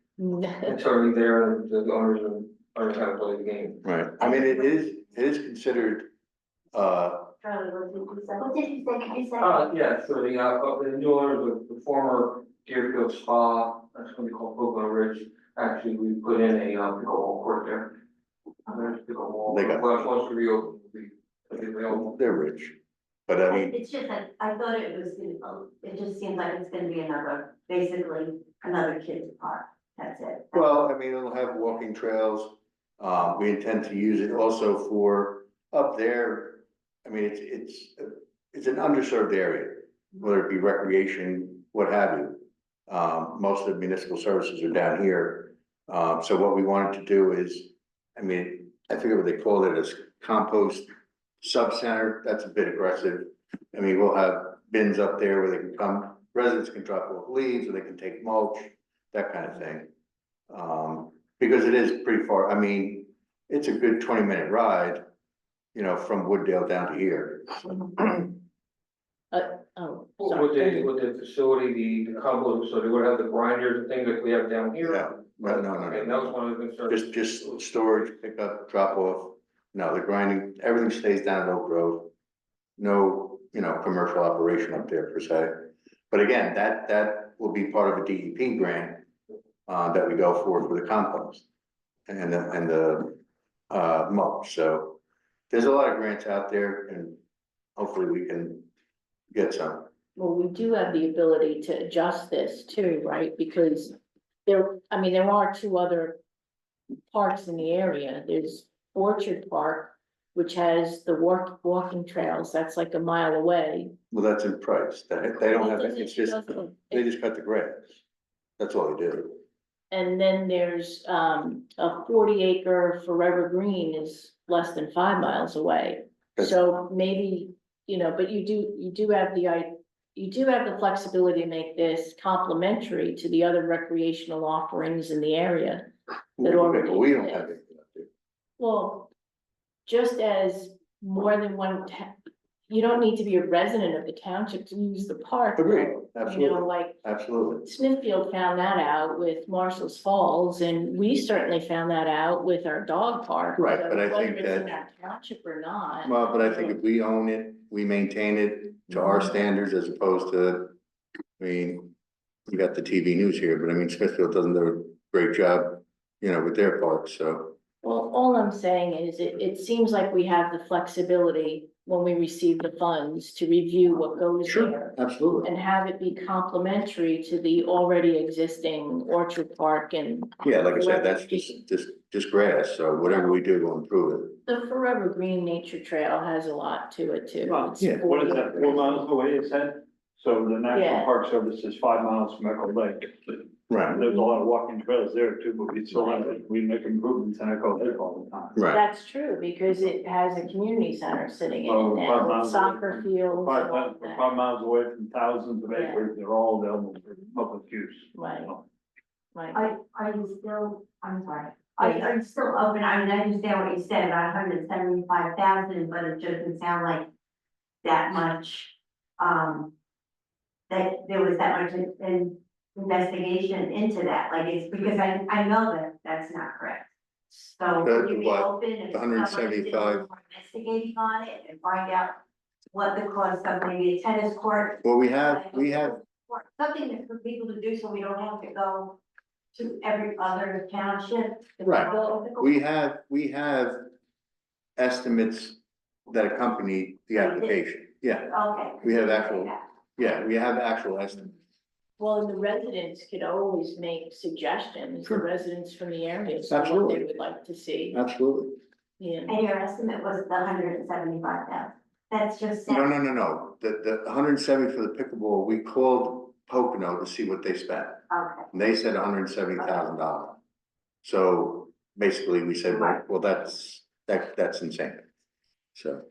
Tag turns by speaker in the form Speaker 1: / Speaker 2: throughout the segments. Speaker 1: Oh,
Speaker 2: It's already there, and the owners are, are trying to play the game.
Speaker 3: Right, I mean, it is, it is considered, uh,
Speaker 4: Charlie, what did you say?
Speaker 5: What did you say, can you say?
Speaker 3: Um,
Speaker 2: Uh, yeah, so the, uh, uh, the new owners of the former Deerfield Spa, that's gonna be called Pocono Ridge, actually, we put in a, uh, pickleball court there. And There's pickleball,
Speaker 3: They got-
Speaker 2: well, once we reopen, we, it'll be available.
Speaker 3: they're rich, but I mean,
Speaker 5: It's just that I thought it was gonna, oh, it just seems like it's gonna be another, basically another kids park, that's it.
Speaker 3: well, I mean, it'll have walking trails. Uh, we intend to use it also for up there, I mean, it's, it's, it's an underserved area, whether it be recreation, what have you. Um, most of the municipal services are down here, uh, so what we wanted to do is, I mean, I forget what they call it, as compost sub-center, that's a bit aggressive. I mean, we'll have bins up there where they can come, residents can drop off leaves, or they can take mulch, that kind of thing. Um, because it is pretty far, I mean, it's a good twenty minute ride, you know, from Wooddale down to here.
Speaker 1: Oh,
Speaker 2: With
Speaker 1: sorry.
Speaker 2: the, with the facility, the, the combo, so they would have the grinders and things like we have down here.
Speaker 3: Yeah, no, no, no,
Speaker 2: And that was
Speaker 3: no.
Speaker 2: one of the concerns.
Speaker 3: Just, just storage, pickup, drop off, no, the grinding, everything stays down at Oak Grove. No, you know, commercial operation up there per se, but again, that, that will be part of a DEP grant. Uh, that we go for, for the compost and, the and the, uh, mulch, so. There's a lot of grants out there and hopefully we can get some,
Speaker 1: Well, we do have the ability to adjust this too, right? Because there, I mean, there are two other parks in the area. There's Orchard Park, which has the walk, walking trails. That's like a mile away.
Speaker 3: well, that's in price, they, they don't have, it's just, they just cut the grass. That's all they do.
Speaker 1: And then there's, um, a forty acre Forever Green is less than five miles away.
Speaker 3: Yes.
Speaker 1: So maybe, you know, but you do, you do have the, i- you do have the flexibility to make this complementary to the other recreational offerings in the area. that already
Speaker 3: But We don't have
Speaker 1: exists.
Speaker 3: anything up there.
Speaker 1: Well, just as more than one ta- you don't need to be a resident of the township to use the park. though.
Speaker 3: Agreed,
Speaker 1: You know,
Speaker 3: absolutely,
Speaker 1: like,
Speaker 3: absolutely.
Speaker 1: Smithfield found that out with Marshall's Falls, and we certainly found that out with our dog park.
Speaker 3: Right,
Speaker 1: So
Speaker 3: but I
Speaker 1: whether
Speaker 3: think
Speaker 1: it's in
Speaker 3: that-
Speaker 1: our Township or not.
Speaker 3: Well, but I think if we own it, we maintain it to our standards as opposed to, I mean, you got the TV news here, but I mean, Smithfield doesn't do a great job, you know, with their parks, so.
Speaker 1: Well, all I'm saying is, it, it seems like we have the flexibility when we receive the funds to review what goes there.
Speaker 3: Absolutely.
Speaker 1: And have it be complementary to the already existing Orchard Park and
Speaker 3: Yeah, like I said, that's just, just, just grass, so whatever we do, we'll improve it.
Speaker 1: the Forever Green Nature Trail has a lot to it too.
Speaker 6: Well,
Speaker 1: It's
Speaker 3: yeah,
Speaker 6: What is that, four
Speaker 1: 40
Speaker 6: miles away, you said? So the
Speaker 1: Yeah.
Speaker 6: National Park Service is five miles from Echo Lake.
Speaker 3: Right,
Speaker 6: There's a lot of walking trails there too, but we still have, we make improvements in Echo Lake all the time.
Speaker 3: right.
Speaker 1: That's true, because it has a community center sitting in
Speaker 6: Oh,
Speaker 1: it
Speaker 6: five
Speaker 1: now,
Speaker 6: miles
Speaker 1: soccer
Speaker 6: away.
Speaker 1: fields. and
Speaker 6: Five,
Speaker 1: all
Speaker 6: mi-
Speaker 1: of that.
Speaker 6: five miles away from thousands of
Speaker 1: Yeah.
Speaker 6: acres, they're all available for public use.
Speaker 1: Right, right.
Speaker 5: Are, are you still, I'm sorry, are, you- are you still open, I mean, I understand what you said about hundred and seventy-five thousand, but it doesn't sound like that much, um, that there was that much in- in investigation into that, like, it's because I, I know that that's not correct. So
Speaker 3: That's
Speaker 5: would you be
Speaker 3: what,
Speaker 5: open if someone did
Speaker 3: 175?
Speaker 5: more investigating on it and find out what the cost of maybe a tennis court
Speaker 3: Well, we have, we have,
Speaker 5: or something that for people to do so we don't have to go to every other township. to
Speaker 3: Right.
Speaker 5: go-
Speaker 3: we have, we have estimates that accompany the application, yeah.
Speaker 5: Okay.
Speaker 3: We have actual- Yeah, we have actual estimates.
Speaker 1: Well, and the residents could always make suggestions, the
Speaker 3: Sure.
Speaker 1: residents from the area, so what they
Speaker 3: Absolutely.
Speaker 1: would like to see,
Speaker 3: Absolutely.
Speaker 1: yeah.
Speaker 5: And your estimate was the hundred and seventy-five thousand, that's just.
Speaker 3: No, no, no, no. The, the hundred and seventy for the pickleball, we called Pocono to see what they spent.
Speaker 5: Okay,
Speaker 3: And they said hundred and seventy thousand dollars. So basically, we said, well, well, that's, that, that's insane. So,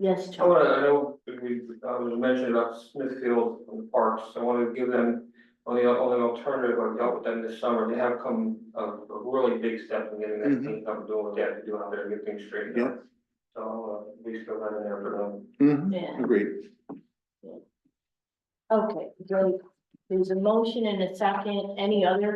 Speaker 1: Yes,
Speaker 2: I wanna, I
Speaker 1: Charlie,
Speaker 2: know, we, I was mentioning about Smithfield and the parks, I wanna give them, on the, on the alternative, I've dealt with them this summer, they have come a, a really big step in getting that
Speaker 3: Mhm.
Speaker 2: thing up, and doing what they have to do out there, to get things straightened out. So, uh, we still have an there for them.
Speaker 3: mhm,
Speaker 1: yeah,
Speaker 3: agreed.
Speaker 1: okay, great. There's a motion and a second, any other